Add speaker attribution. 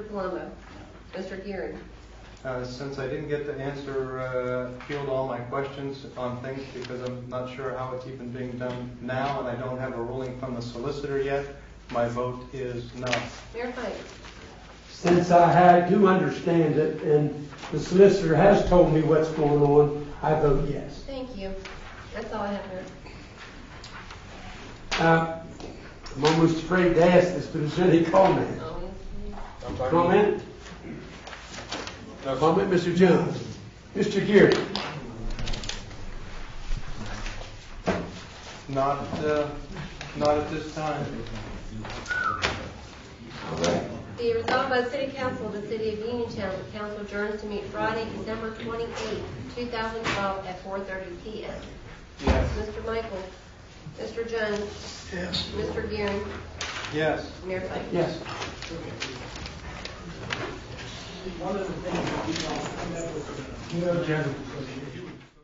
Speaker 1: Palumbo. Mr. Gearing.
Speaker 2: Uh, Since I didn't get to answer, uh, field all my questions on things because I'm not sure how it's even being done now and I don't have a ruling from the solicitor yet, my vote is no.
Speaker 1: Mayor Pike.
Speaker 3: Since I had, do understand it, and the solicitor has told me what's going on, I vote yes.
Speaker 1: Thank you. That's all I have, Mayor.
Speaker 3: Uh, I'm almost afraid to ask this, but is there any comment?
Speaker 1: Always.
Speaker 3: Comment? Comment, Mr. Jones? Mr. Geary?
Speaker 2: Not, uh, not at this time.
Speaker 1: Be resolved by the City Council of the City of Uniontown, the council adjourns to meet Friday, December 28, 2012, at 4:30 PM.
Speaker 2: Yes.
Speaker 1: Mr. Michael. Mr. Jones.
Speaker 2: Yes.
Speaker 1: Mr. Gearing.
Speaker 2: Yes.
Speaker 1: Mayor Pike.
Speaker 3: Yes.
Speaker 4: One of the things that we don't come up with, you know, Jen,